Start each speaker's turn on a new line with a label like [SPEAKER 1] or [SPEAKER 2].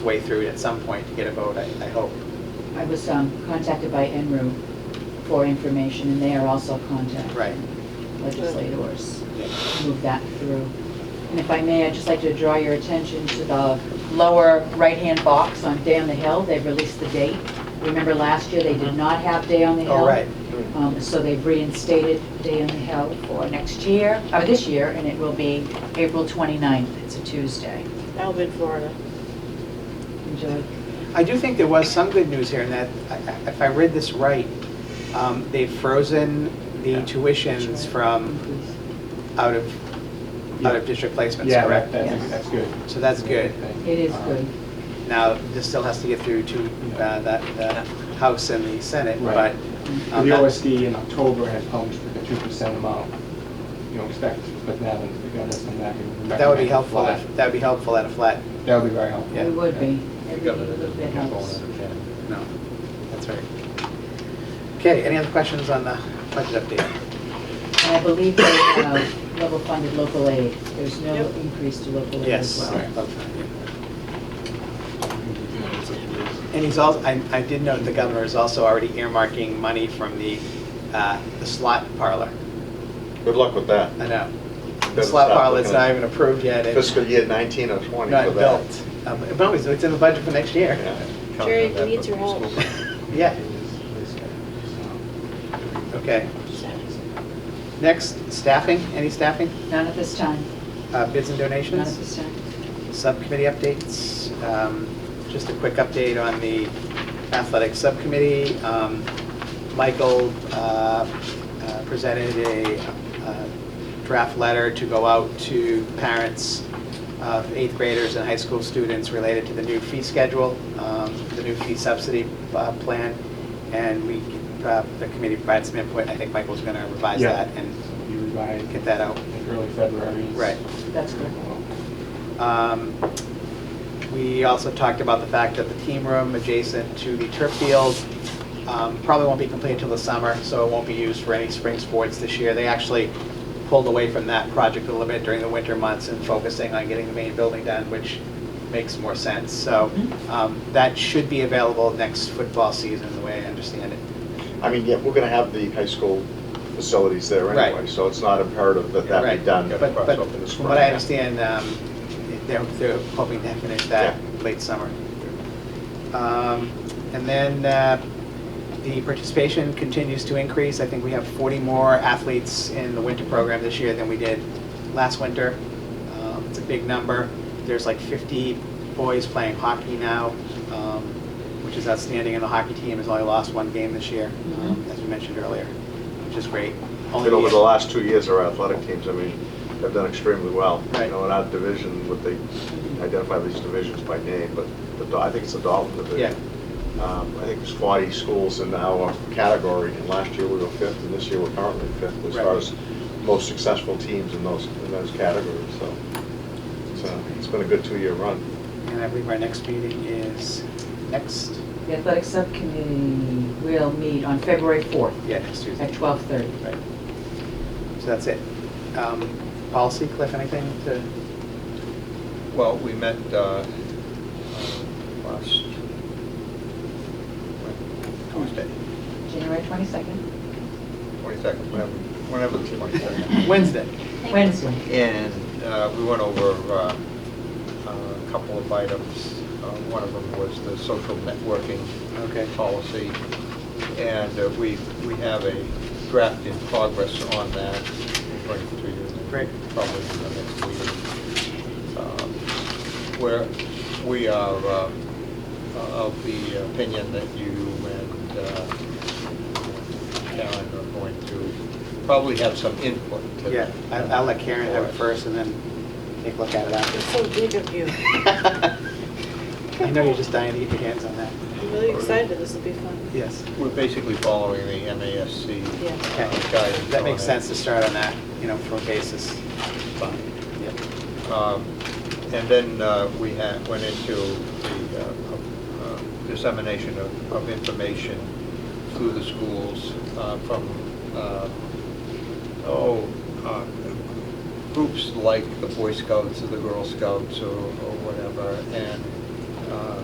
[SPEAKER 1] way through it at some point to get a vote, I, I hope.
[SPEAKER 2] I was um, contacted by NRU for information, and they are also contacting
[SPEAKER 1] Right.
[SPEAKER 2] legislators to move that through. And if I may, I'd just like to draw your attention to the lower right-hand box on Day on the Hill. They've released the date. Remember last year, they did not have Day on the Hill.
[SPEAKER 1] All Mm-hmm. Oh, right.
[SPEAKER 2] Um, So they've reinstated Day on the Hill for next year, or this year, and it will be April 29th. It's a Tuesday.
[SPEAKER 3] Alvin, Florida.
[SPEAKER 2] Enjoy.
[SPEAKER 1] I do think there was some good news here in that, I- I- if I read this right, um, they've frozen the tuitions from out of, out of district placements,
[SPEAKER 4] Yeah,
[SPEAKER 1] correct?
[SPEAKER 4] that- that's,
[SPEAKER 2] Yes.
[SPEAKER 4] that's good.
[SPEAKER 1] So that's good.
[SPEAKER 2] It is good.
[SPEAKER 1] Uh, Now, this still has to get through to uh, that, the House and the Senate, but.
[SPEAKER 4] Right. The
[SPEAKER 1] um, that-
[SPEAKER 4] OSD in October had published the two percent amount, you know, expected, but now that the governor's come back and.
[SPEAKER 1] That would be
[SPEAKER 4] recommended
[SPEAKER 1] helpful,
[SPEAKER 4] flat,
[SPEAKER 1] that would be helpful at a flat,
[SPEAKER 4] That would be very helpful.
[SPEAKER 1] Yeah.
[SPEAKER 2] It would be.
[SPEAKER 5] The
[SPEAKER 2] Every
[SPEAKER 5] governor
[SPEAKER 2] little
[SPEAKER 5] doesn't
[SPEAKER 2] bit
[SPEAKER 5] control
[SPEAKER 2] helps.
[SPEAKER 5] it, okay.
[SPEAKER 1] no, that's right. Okay, any other questions on the budget update?
[SPEAKER 2] And I believe they have uh, level funded local aid. There's no
[SPEAKER 3] Yep.
[SPEAKER 2] increase to local aid as
[SPEAKER 1] Yes.
[SPEAKER 2] well.
[SPEAKER 1] And he's also, I, I did note the governor is also already earmarking money from the, uh, the slot parlor.
[SPEAKER 6] Good luck with that.
[SPEAKER 1] I know. The
[SPEAKER 6] Better
[SPEAKER 1] slot
[SPEAKER 6] stop
[SPEAKER 1] parlor's
[SPEAKER 6] looking at
[SPEAKER 1] not even approved yet. It's
[SPEAKER 6] Fiscal year 19 or 20 for that.
[SPEAKER 1] not built. Um, No, it's it's in the budget for next year.
[SPEAKER 6] Yeah.
[SPEAKER 3] Jerry, we need your help.
[SPEAKER 1] Yeah, okay. Next, staffing, any staffing,
[SPEAKER 2] None at this time.
[SPEAKER 1] Uh, bids and donations?
[SPEAKER 2] None at this time.
[SPEAKER 1] Subcommittee updates, um, just a quick update on the athletic subcommittee. Um, Michael uh, uh, presented a uh, draft letter to go out to parents of eighth graders and high school students related to the new fee schedule, um, the new fee subsidy uh, plan, and we, uh, the committee provided some input, I think Michael's going to revise
[SPEAKER 4] Yeah.
[SPEAKER 1] that and
[SPEAKER 4] You revised
[SPEAKER 1] get that out.
[SPEAKER 4] in early February.
[SPEAKER 1] Right.
[SPEAKER 2] That's good.
[SPEAKER 1] Um, We also talked about the fact that the team room adjacent to the turf field um, probably won't be completed till the summer, so it won't be used for any spring sports this year. They actually pulled away from that project a little bit during the winter months and focusing on getting the main building done, which makes more sense. So um, that should be available next football season, the way I understand it.
[SPEAKER 6] I mean, yeah, we're going to have the high school facilities there anyway,
[SPEAKER 1] Right.
[SPEAKER 6] so it's not imperative that that
[SPEAKER 1] Right.
[SPEAKER 6] be done.
[SPEAKER 1] But, but
[SPEAKER 6] up in the
[SPEAKER 1] from what I
[SPEAKER 6] spring.
[SPEAKER 1] understand, um, they're, they're hoping to finish that late summer. Um, And then uh, the participation continues to increase. I think we have 40 more athletes in the winter program this year than we did last winter. Um, It's a big number. There's like 50 boys playing hockey now, um, which is outstanding, and the hockey team has only lost one game this year, um, as we mentioned earlier, which is great. Only
[SPEAKER 6] And over the
[SPEAKER 1] year-
[SPEAKER 6] last two years, our athletic teams, I mean, have done extremely well.
[SPEAKER 1] Right.
[SPEAKER 6] You know, in our division, what they identify these divisions by name, but the Dol- I think it's the Dalton division. Um, I think there's 40 schools in our category, and last year we were fifth, and this year we're currently fifth as
[SPEAKER 1] Right.
[SPEAKER 6] far as most successful teams in those, in those categories, so. So it's been a good two-year run.
[SPEAKER 1] And I believe our next meeting is next,
[SPEAKER 2] The athletic subcommittee will meet on February 4th
[SPEAKER 1] yeah, next
[SPEAKER 2] at
[SPEAKER 1] Tuesday.
[SPEAKER 2] 12:30.
[SPEAKER 1] Right. So that's it. Um, Policy, Cliff, anything to,
[SPEAKER 5] Well, we met uh, uh, last
[SPEAKER 1] Oh,
[SPEAKER 5] Tuesday,
[SPEAKER 2] January 22nd,
[SPEAKER 5] 22nd, whenever- whenever the 22nd.
[SPEAKER 1] Wednesday?
[SPEAKER 2] Wednesday.
[SPEAKER 5] And uh, we went over uh, a couple of items. Uh, One of them was the social networking
[SPEAKER 1] Okay.
[SPEAKER 5] policy. And uh, we, we have a draft in progress on that. We'll bring it to you.
[SPEAKER 1] Great.
[SPEAKER 5] Probably in the next meeting. Um, Where we are uh, of the opinion that you and uh, Karen are going to probably have some input to that.
[SPEAKER 1] Yeah, I- I'll let Karen have it first and then take a look at it
[SPEAKER 3] It's
[SPEAKER 1] after.
[SPEAKER 3] so big of you.
[SPEAKER 1] I know you're just dying to get your hands on that.
[SPEAKER 3] I'm really excited, this will be fun.
[SPEAKER 1] Yes.
[SPEAKER 5] We're basically following the MASC
[SPEAKER 3] Yeah.
[SPEAKER 1] Okay.
[SPEAKER 5] uh, guidance.
[SPEAKER 1] That
[SPEAKER 5] on
[SPEAKER 1] makes
[SPEAKER 5] it.
[SPEAKER 1] sense to start on that, you know, for a basis. Yep.
[SPEAKER 5] Um, And then uh, we had, went into the uh, uh, dissemination of, of information through the schools uh, from, uh, oh, uh, groups like the Boy Scouts or the Girl Scouts or or whatever, and uh,